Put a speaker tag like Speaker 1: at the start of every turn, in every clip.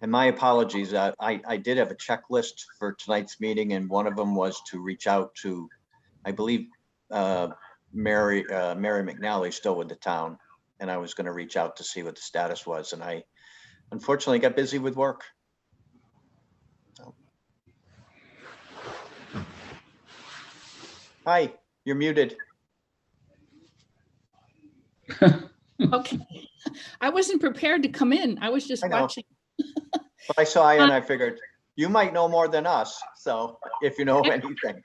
Speaker 1: And my apologies, uh, I, I did have a checklist for tonight's meeting and one of them was to reach out to, I believe, uh, Mary, uh, Mary McNally's still with the town. And I was going to reach out to see what the status was and I unfortunately got busy with work. Hi, you're muted.
Speaker 2: Okay. I wasn't prepared to come in. I was just
Speaker 1: I know.
Speaker 2: watching.
Speaker 1: But I saw you and I figured you might know more than us. So if you know anything.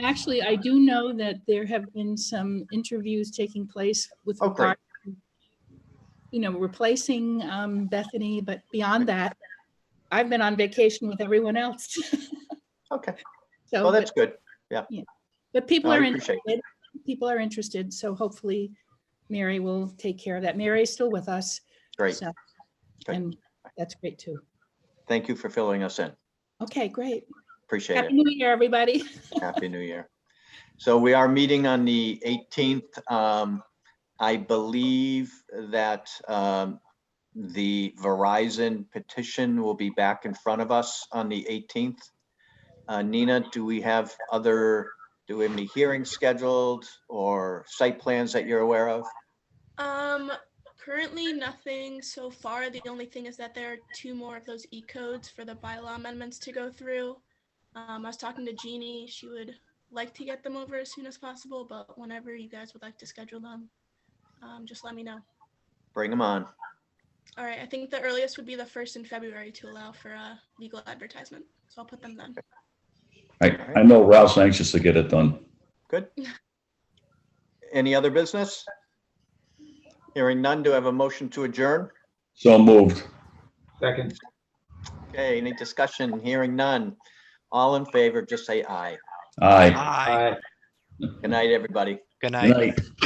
Speaker 2: Actually, I do know that there have been some interviews taking place with
Speaker 1: Oh, great.
Speaker 2: regard, to, you know, replacing um, Bethany, but beyond that, I've been on vacation with everyone else.
Speaker 1: Okay,
Speaker 2: So,
Speaker 1: well,
Speaker 2: but-
Speaker 1: that's good.
Speaker 2: but people
Speaker 1: I
Speaker 2: are
Speaker 1: appreciate
Speaker 2: interested. People are interested, so hopefully Mary will take care of that. Mary is still with us.
Speaker 1: Great.
Speaker 2: so-
Speaker 1: Great.
Speaker 2: And that's great too.
Speaker 1: Thank you for filling us in.
Speaker 2: Okay, great.
Speaker 1: Appreciate
Speaker 2: Happy
Speaker 1: it.
Speaker 2: New Year, everybody.
Speaker 1: Happy New Year. So we are meeting on the 18th. Um, I believe that um, the Verizon petition will be back in front of us on the 18th. Uh, Nina, do we have other, do we have any hearings scheduled or site plans that you're aware of?
Speaker 3: Um, currently nothing so far. The only thing is that there are two more of those E codes for the bylaw amendments to go through. Um, I was talking to Jeannie. She would like to get them over as soon as possible, but whenever you guys would like to schedule them, um, just let me know.
Speaker 1: Bring them on.
Speaker 3: All right, I think the earliest would be the first in February to allow for a legal advertisement. So I'll put them then.
Speaker 4: I, I know Ralph's anxious to get it done.
Speaker 1: Any other business? Hearing none, do I have a motion to adjourn?
Speaker 4: So moved.
Speaker 5: Second,
Speaker 1: Okay, any discussion? Hearing none. All in favor, just say aye.
Speaker 4: Aye.
Speaker 6: Aye.
Speaker 5: aye.
Speaker 1: Good night, everybody.
Speaker 4: Good
Speaker 6: Good night.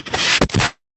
Speaker 4: night.